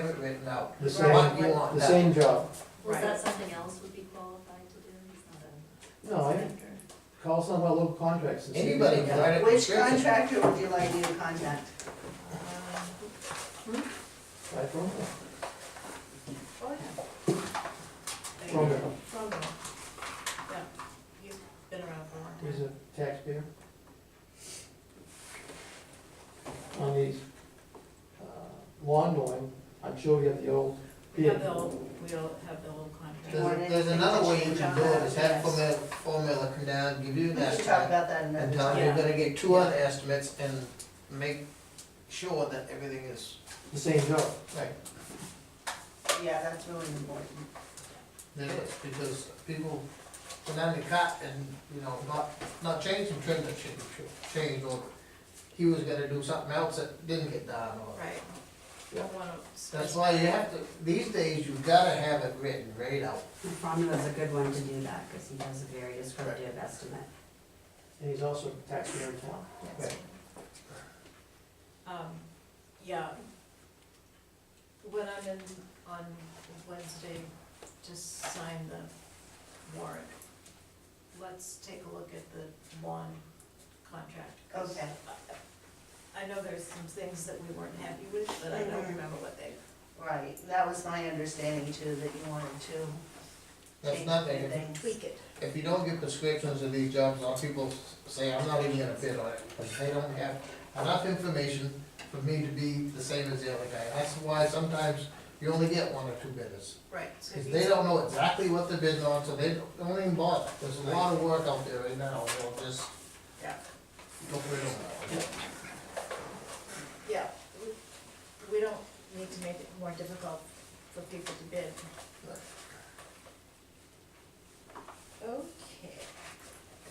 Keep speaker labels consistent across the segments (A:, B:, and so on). A: written out. What
B: The
A: you
B: same,
A: want,
B: the
A: that.
B: same job.
C: Was
D: Right.
C: that something else would be qualified to do? He's not a-
B: No, I- Call some of our local contracts and see. if they
A: Anybody can write a
D: Which
A: description.
D: contractor would you like me to contact?
B: Try from them.
E: Oh, yeah.
B: From them.
E: From him. Yeah, he's been around for a long
B: He's
E: time.
B: a taxpayer. On these uh, lawn mowing, I'm sure we have the old
E: We have
B: bid.
E: the old, we all have the old contract.
D: Warning,
A: There's, there's another way you can do it, is have
D: Yes.
A: formula, formula come down, give you
D: We
A: an
D: should talk
A: estimate.
D: about that
A: And
D: in another
A: Tom,
D: time.
A: you're
E: Yeah.
A: gonna get two other estimates and make sure that everything is
B: The same job.
A: right.
D: Yeah, that's really important.
A: There is, because people put down the cut and, you know, not, not change some trim that should be tr- changed, or he was gonna do something else that didn't get done, or.
E: Right.
B: Yeah.
E: Don't wanna
A: That's
E: spend-
A: why you have to, these days, you gotta have it written right out.
F: The formula's a good one to do that, because he does a very descriptive estimate.
B: And he's also a taxpayer in town.
A: Right.
E: Um, yeah. When I'm in on Wednesday, just sign the warrant. Let's take a look at the lawn contract. 'cause
D: Okay.
E: I- I know there's some things that we weren't happy with, but I don't
F: Mm-hmm.
D: Mhm.
E: remember what they,
D: Right, that was my understanding too, that you wanted to
A: That's
D: change
A: not,
D: a
A: bad.
D: few
A: if,
D: things.
E: tweak it.
A: if you don't get prescriptions of these jobs, a lot of people s- say, I'm not even gonna bid on it, because they don't have enough information for me to be the same as the other guy. That's why sometimes you only get one or two bidders.
E: Right. so
A: Because
E: if
A: they
E: you-
A: don't know exactly what they're bidding on, so they don't- don't even bother. There's a lot of work out there right now, so just
E: Yeah.
A: don't put it on.
E: Yeah, we- we don't need to make it more difficult for people to bid.
A: Right.
E: Okay.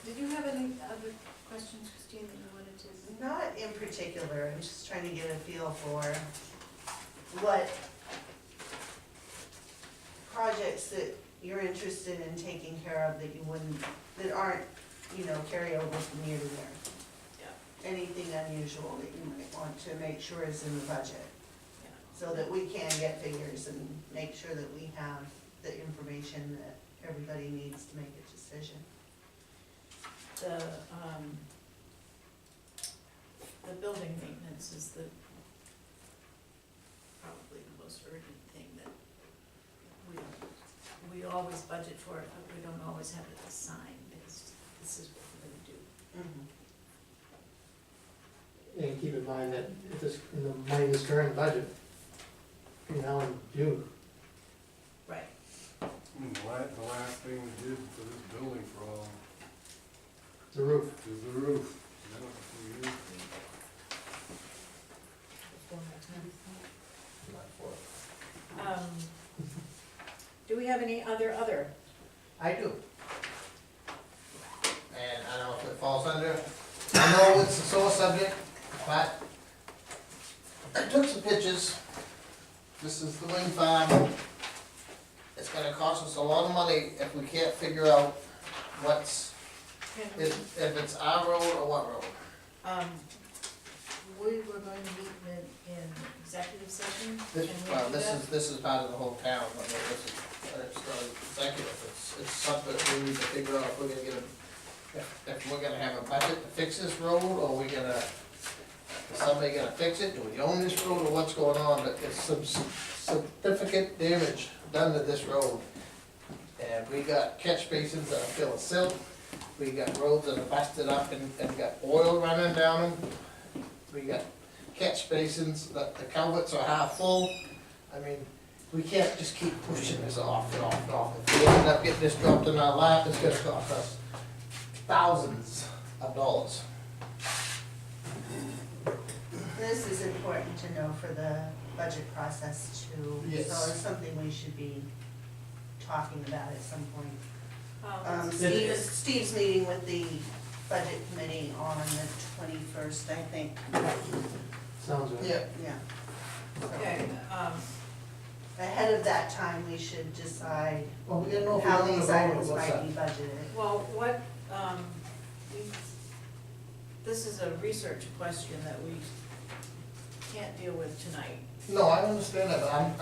E: Did you have any other questions, Christine, that you wanted to?
D: Not in particular, I'm just trying to get a feel for what projects that you're interested in taking care of that you wouldn't, that aren't, you know, carryover from year to year. Anything unusual that you might want to make sure is in the budget.
E: Yeah.
D: so that we can get figures and make sure that we have the information that everybody needs to make a decision.
E: The, um, the building maintenance is the, probably the most urgent thing that we, we always budget for it, but we don't always have it assigned, because this is what we're gonna do.
B: And keep in mind that if this, in the money in this current budget, between now and June,
E: Right.
G: And Hmm, The last, the last thing we did for this building for all
B: the roof,
G: is the roof. That was a few years ago.
E: Um, do we have any other, other?
A: I do. And I don't know if it falls under, I know it's a sore subject, but I took some pictures. This is the wing farm. It's gonna cost us a lot of money if we can't figure out what's,
E: Can we-
A: if, if it's our road or what road.
E: Um, we were going to meet in, in executive session. Can we
A: This, well,
E: do
A: this
E: that?
A: is, this is part of the whole town, but this is, but it's not executive, it's, it's something that we need to figure out if we're gonna get a, if, if we're gonna have a budget to fix this road, or we gonna, is somebody gonna fix it, do we own this road, or what's going on, but it's some significant damage done to this road. And we got catch basins that are filled with silt, we got roads that are busted up and, and got oil running down them, we got catch basins, that the culverts are half full. I mean, we can't just keep pushing this off and off and off. If we end up getting this dropped in our lap, it's gonna cost us thousands of dollars.
D: This is important to know for the budget process too.
A: Yes.
D: So it's something we should be talking about at some point. Um,
E: Um,
D: Steve, Steve's meeting with the budget committee on the twenty-first, I think,
B: sounds right.
A: Yeah.
D: yeah.
E: okay, um,
D: Ahead of that time, we should decide
A: Well, we gotta know if we're
D: how
A: gonna
D: these
A: vote or
D: items
A: what's
D: might
A: up.
D: be budgeted.
E: well, what, um, we, this is a research question that we can't deal with tonight.
A: No, I understand that, but I'm,